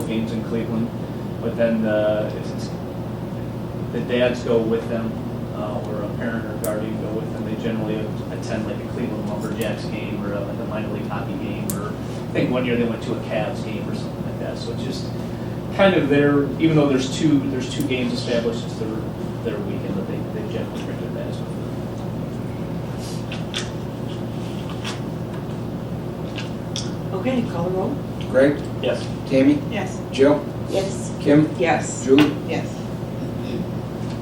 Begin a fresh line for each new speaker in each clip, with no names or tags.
games in Cleveland, but then the, it's- the dads go with them, uh, or a parent or guardian go with them. They generally attend like a Cleveland Lumberjacks game or a- like a minor league hockey game, or I think one year they went to a Cavs game or something like that. So it's just kind of their, even though there's two, there's two games established, it's their, their weekend, but they, they generally bring their dads with them.
Okay, call the roll.
Greg,
Yes.
Tammy,
Yes.
Jill,
Yes,
Kim,
Yes.
Julie.
Yes.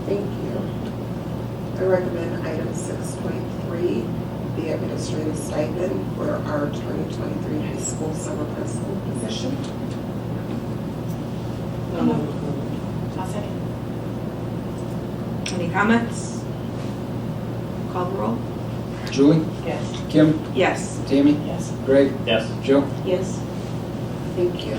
thank you. I recommend item six point three, the administrative stipend for our twenty twenty-three high school summer principal position.
No move.
I'll second.
Any comments? Call the roll.
Julie,
Yes.
Kim,
Yes.
Tammy,
Yes.
Greg,
Yes.
Jill.
Yes.
Thank you.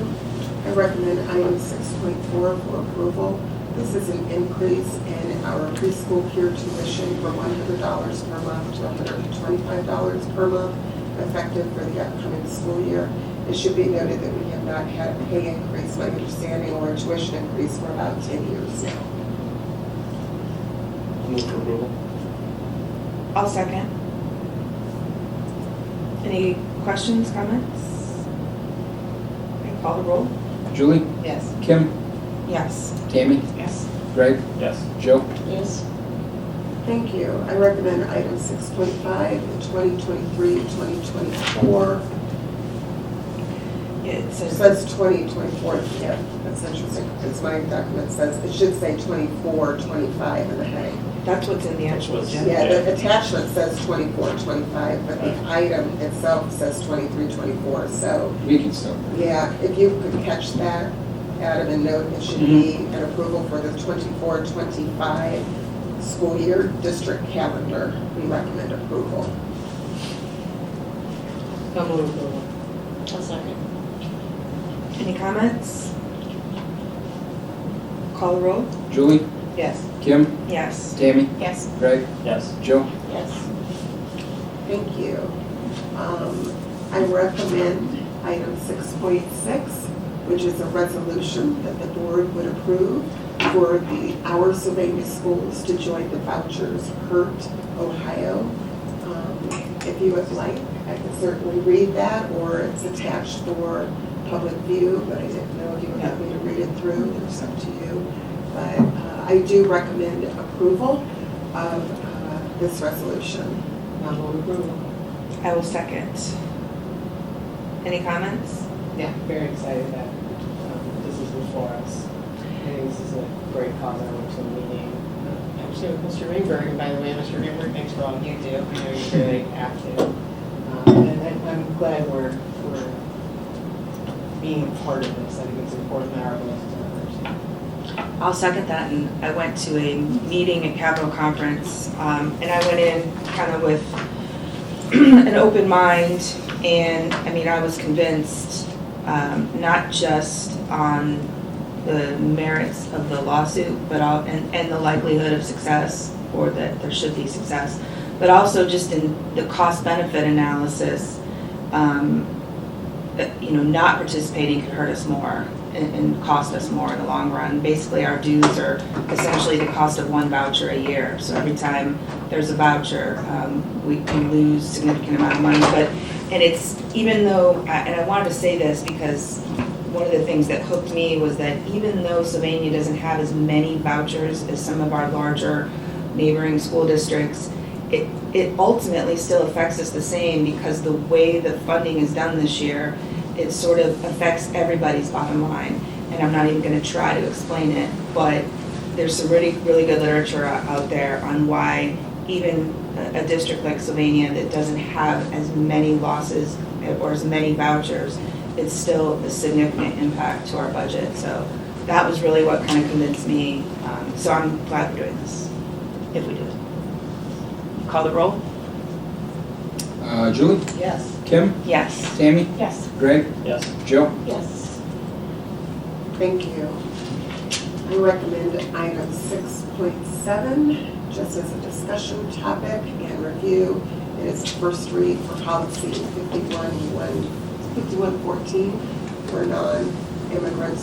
I recommend item six point four for approval. This is an increase in our preschool peer tuition from one hundred dollars per month to hundred and twenty-five dollars per month, effective for the upcoming school year. It should be noted that we have not had a pay increase, my understanding, or a tuition increase for about ten years now.
Move for approval.
I'll second. Any questions, comments? Okay, call the roll.
Julie,
Yes.
Kim,
Yes.
Tammy,
Yes.
Greg,
Yes.
Jill.
Yes.
Thank you. I recommend item 6.5, the 2023, 2024,
It
it
says,
says 2024 yeah, that's interesting, because my document says, it should say 24, 25 in the heading.
that's what's in the actual
That's what's-
agenda.
Yeah, the attachment says 24, 25, but the item itself says 23, 24, so,
We can still.
yeah, if you could catch that, Adam, and note, it should be an approval for the 24, 25 school year district calendar. We recommend approval.
No move approval.
I'll second.
Any comments? Call the roll.
Julie,
Yes.
Kim,
Yes.
Tammy,
Yes.
Greg,
Yes.
Jill.
Yes.
Thank you. Um, I recommend item six point six, which is a resolution that the board would approve for the our Sylvania schools to join the vouchers Hurt Ohio. Um, If you would like, I can certainly read that, or it's attached for public view, but I didn't know if you would like me to read it through, it's up to you. But uh, I do recommend approval of uh, this resolution.
No move approval.
Um,
I will second. Any comments?
Yeah, very excited that um, this is before us. I think this is a great cause. I went to a meeting, uh, actually with Mr. Rainberg, and by the way, Mr. Rainberg, thanks for all you do. I know you're very active. Um, And I- I'm glad we're, we're being a part of this. I think it's important that our voices are heard.
I'll second that, and I went to a meeting at Capitol Conference, um, and I went in kind of with an open mind, and, I mean, I was convinced, um, not just on the merits of the lawsuit, but all, and, and the likelihood of success, or that there should be success, but also just in the cost benefit analysis, um, that, you know, not participating could hurt us more and, and cost us more in the long run. Basically, our dues are essentially the cost of one voucher a year. So every time there's a voucher, um, we can lose significant amount of money. But, and it's, even though, I- and I wanted to say this because one of the things that hooked me was that even though Sylvania doesn't have as many vouchers as some of our larger neighboring school districts, it, it ultimately still affects us the same because the way the funding is done this year, it sort of affects everybody's bottom line. And I'm not even gonna try to explain it, but there's some really, really good literature o- out there on why even a, a district like Sylvania that doesn't have as many losses or as many vouchers, it's still a significant impact to our budget. So that was really what kind of convinced me. Um, so I'm glad we're doing this, if we do it. Call the roll?
Uh, Julie,
Yes.
Kim,
Yes.
Tammy,
Yes.
Greg,
Yes.
Jill.
Yes.
Thank you. I recommend item six point seven, just as a discussion topic and review. It is first read for policy fifty-one, one, fifty-one fourteen for non-immigrants